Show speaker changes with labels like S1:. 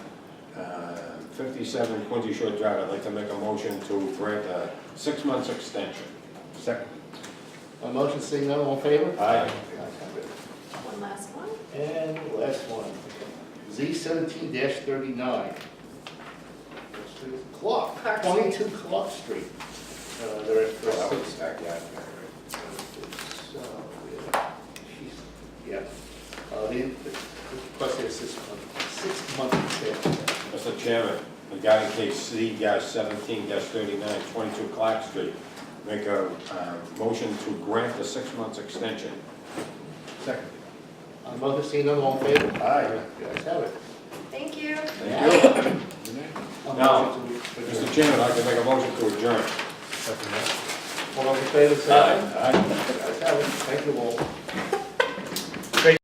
S1: 57 Quincy Shore Drive, I'd like to make a motion to grant a six months extension.
S2: Second.
S3: A motion seeing none, all in favor?
S1: Aye.
S4: One last one.
S3: And the last one, Z seventeen thirty-nine. Clock,
S4: Clark Street.
S3: twenty-two Clock Street. Uh, They're at
S1: Well, that
S3: Clark.
S1: was back yard.
S3: So, yeah, she's- Yeah, uh, they requested a six-month, six-month extension.
S1: Mr. Chairman, regarding case C dash 17 dash 39, 22 Clark Street, make a uh, motion to grant the six months extension.
S2: Second.
S3: Uh, motion seeing none, all in favor?
S1: Aye.
S3: You guys have it.
S4: Thank you.
S1: Thank you.
S3: A
S1: Now,
S3: motion to-
S1: Mr. Chairman, I'd like to make a motion to adjourn.
S2: Second.
S3: All those in favor, say aye.
S1: Aye.
S3: You guys have it. Thank you all.